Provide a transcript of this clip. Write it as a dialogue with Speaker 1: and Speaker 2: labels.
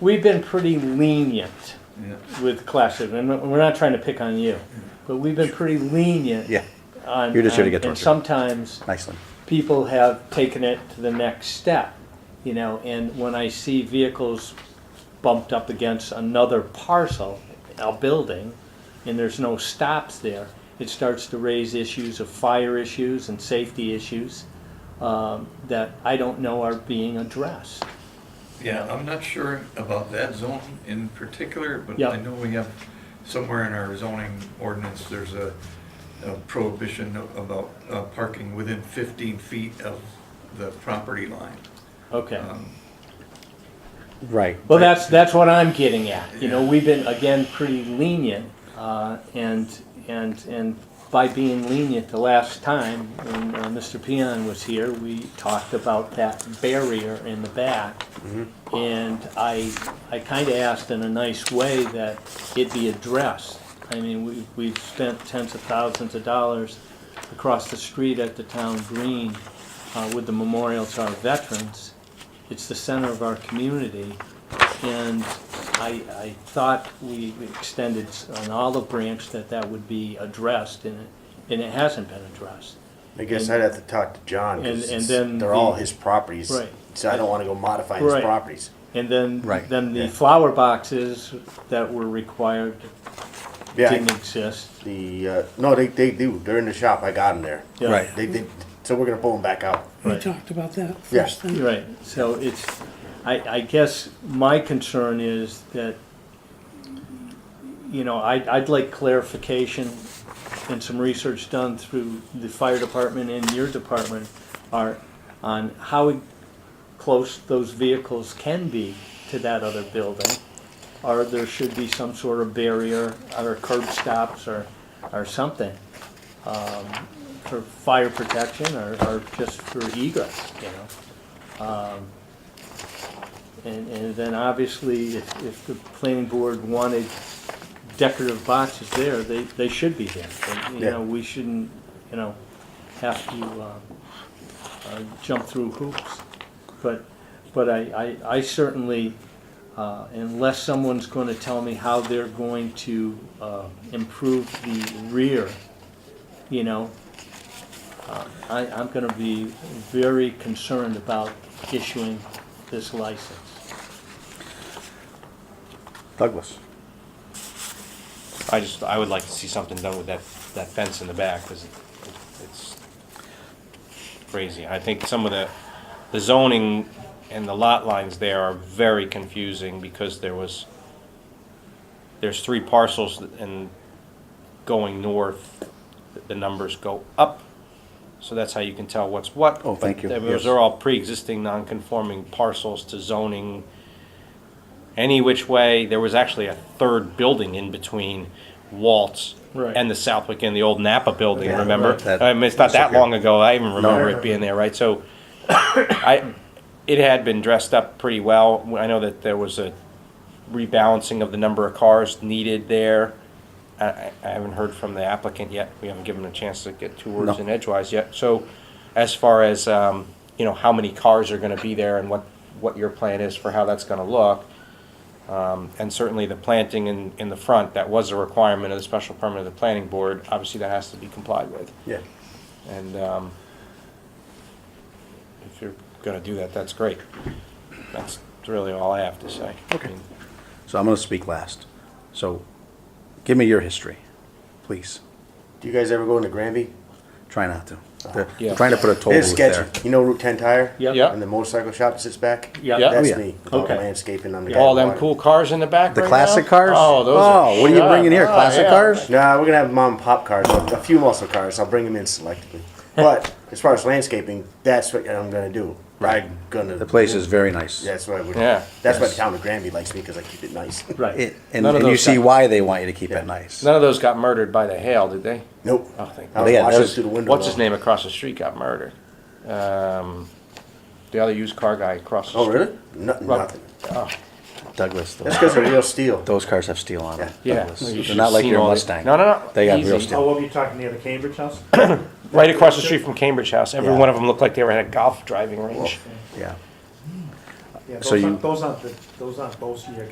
Speaker 1: We've been pretty lenient
Speaker 2: Yeah.
Speaker 1: with classes, and we're not trying to pick on you, but we've been pretty lenient.
Speaker 3: Yeah,
Speaker 1: on-
Speaker 3: You're just here to
Speaker 1: on-
Speaker 3: get
Speaker 1: And
Speaker 3: tortured.
Speaker 1: sometimes
Speaker 3: nicely.
Speaker 1: people have taken it to the next step, you know, and when I see vehicles bumped up against another parcel, a building, and there's no stops there, it starts to raise issues of fire issues and safety issues um, that I don't know are being addressed.
Speaker 2: Yeah, I'm not sure about that zone in particular, but
Speaker 1: Yeah.
Speaker 2: I know we have, somewhere in our zoning ordinance, there's a a prohibition about uh, parking within 15 feet of the property line.
Speaker 1: Okay.
Speaker 2: Um,
Speaker 3: Right.
Speaker 1: Well, that's, that's what I'm getting at. You know, we've been, again, pretty lenient, uh, and, and, and by being lenient the last time, when uh, Mr. Peon was here, we talked about that barrier in the back. And I, I kinda asked in a nice way that it be addressed. I mean, we, we've spent tens of thousands of dollars across the street at the town green, uh, with the memorial to our veterans. It's the center of our community, and I, I thought we extended an olive branch that that would be addressed, and it, and it hasn't been addressed.
Speaker 4: I guess
Speaker 1: And-
Speaker 4: I'd have to talk to John
Speaker 1: and-
Speaker 4: because
Speaker 1: and then
Speaker 4: they're all
Speaker 1: the-
Speaker 4: his properties.
Speaker 1: Right.
Speaker 4: So I don't want to go modify his
Speaker 1: Right.
Speaker 4: properties.
Speaker 1: And then,
Speaker 3: Right,
Speaker 1: then the
Speaker 4: yeah.
Speaker 1: flower boxes that were required
Speaker 4: Yeah.
Speaker 1: didn't exist.
Speaker 4: The uh, no, they they do. They're in the shop. I got them there.
Speaker 1: Yeah.
Speaker 3: Right.
Speaker 4: They, they so we're gonna pull them back out.
Speaker 5: We
Speaker 1: Right.
Speaker 5: talked about that
Speaker 4: Yeah.
Speaker 5: first thing.
Speaker 1: Right, so it's, I, I guess my concern is that, you know, I, I'd like clarification and some research done through the fire department and your department are, on how close those vehicles can be to that other building. Or there should be some sort of barrier, or curb stops, or, or something, um, for fire protection, or, or just for egress, you know? Um, And, and then obviously, if, if the planning board wanted decorative boxes there, they, they should be there. And, You
Speaker 4: Yeah.
Speaker 1: know, we shouldn't, you know, have to, uh, uh, jump through hoops. But, but I, I, I certainly, uh, unless someone's gonna tell me how they're going to, uh, improve the rear, you know, uh, I, I'm gonna be very concerned about issuing this license.
Speaker 3: Douglas.
Speaker 6: I just, I would like to see something done with that, that fence in the back, because it's crazy. I think some of the, the zoning and the lot lines there are very confusing, because there was, there's three parcels, and going north, the numbers go up, so that's how you can tell what's what.
Speaker 3: Oh, thank you,
Speaker 6: But Those
Speaker 3: yes.
Speaker 6: are all pre-existing, non-conforming parcels to zoning any which way. There was actually a third building in between Waltz
Speaker 1: Right.
Speaker 6: and the Southwick and the old Napa building.
Speaker 3: Yeah,
Speaker 6: remember?
Speaker 3: right, that-
Speaker 6: I mean, it's not that long ago. I even remember
Speaker 4: No.
Speaker 6: it being there, right? So, I it had been dressed up pretty well. I know that there was a rebalancing of the number of cars needed there. I, I I haven't heard from the applicant yet. We haven't given them a chance to get two words
Speaker 3: No.
Speaker 6: in edgewise yet. So, as far as um, you know, how many cars are going to be there and what what your plan is for how that's going to look. Um, and certainly the planting in, in the front, that was a requirement of the special permit of the planning board. Obviously, that has to be complied with.
Speaker 4: Yeah.
Speaker 6: And um, if you're going to do that, that's great. That's really all I have to say. Okay.
Speaker 3: So I'm going to speak last. So give me your history, please.
Speaker 4: Do you guys ever go into Granby?
Speaker 3: Try not to. They're
Speaker 6: Oh, Yeah.
Speaker 3: trying to put a toll
Speaker 4: It's
Speaker 3: booth
Speaker 4: sketchy.
Speaker 3: there.
Speaker 4: You know Route Ten Tire?
Speaker 1: Yep.
Speaker 6: Yeah.
Speaker 4: And the motorcycle shop that sits back.
Speaker 1: Yeah.
Speaker 6: Yeah.
Speaker 4: That's
Speaker 3: Oh, yeah.
Speaker 4: me. with all the
Speaker 1: Okay.
Speaker 4: Landscaping on the.
Speaker 6: All
Speaker 4: back
Speaker 6: them
Speaker 4: corner.
Speaker 6: cool cars in the back
Speaker 3: The
Speaker 6: right
Speaker 3: classic
Speaker 6: now?
Speaker 3: cars?
Speaker 6: Oh, those are.
Speaker 3: Oh, what are you
Speaker 6: shot.
Speaker 3: bringing here?
Speaker 6: Oh,
Speaker 3: Classic
Speaker 6: yeah.
Speaker 3: cars?
Speaker 4: Nah, we're gonna have mom and pop cars, a a few muscle cars. I'll bring them in selectively. But as far as landscaping, that's what I'm gonna do.
Speaker 3: Right.
Speaker 4: I'm gonna.
Speaker 3: The place is very nice.
Speaker 4: That's why we.
Speaker 6: Yeah.
Speaker 4: That's why
Speaker 3: Yes.
Speaker 4: the town of Granby likes me because I keep it nice.
Speaker 1: Right.
Speaker 3: It- and
Speaker 6: None of
Speaker 3: and you
Speaker 6: those
Speaker 3: see
Speaker 6: got-
Speaker 3: why they want you to keep it nice.
Speaker 6: None of those got murdered by the hail, did they?
Speaker 4: Nope.
Speaker 6: Oh, thank
Speaker 4: I was
Speaker 3: Yeah, that
Speaker 4: watching
Speaker 3: was-
Speaker 4: through the window.
Speaker 6: What's his
Speaker 4: though.
Speaker 6: name across the street got murdered? Um, The other used car guy across the
Speaker 4: Oh,
Speaker 6: street.
Speaker 4: really? No, nothing.
Speaker 3: Douglas,
Speaker 4: That's
Speaker 3: those,
Speaker 4: because of real steel.
Speaker 3: those cars have steel on them.
Speaker 6: Yeah.
Speaker 3: Douglas.
Speaker 6: Well, you
Speaker 3: They're
Speaker 6: should've
Speaker 3: not like
Speaker 6: seen
Speaker 3: your
Speaker 6: all the-
Speaker 3: Mustang.
Speaker 6: No, no, no.
Speaker 3: They got
Speaker 6: Easy.
Speaker 3: real steel.
Speaker 7: Oh, what were you talking, near the Cambridge house?
Speaker 6: Right across the street from Cambridge House. Every
Speaker 3: Yeah.
Speaker 6: Oh. one of them looked like they were at a golf driving range.
Speaker 3: Yeah.
Speaker 1: Yeah,
Speaker 8: So
Speaker 1: those
Speaker 8: you-
Speaker 1: aren't, those aren't, the- those aren't, those are your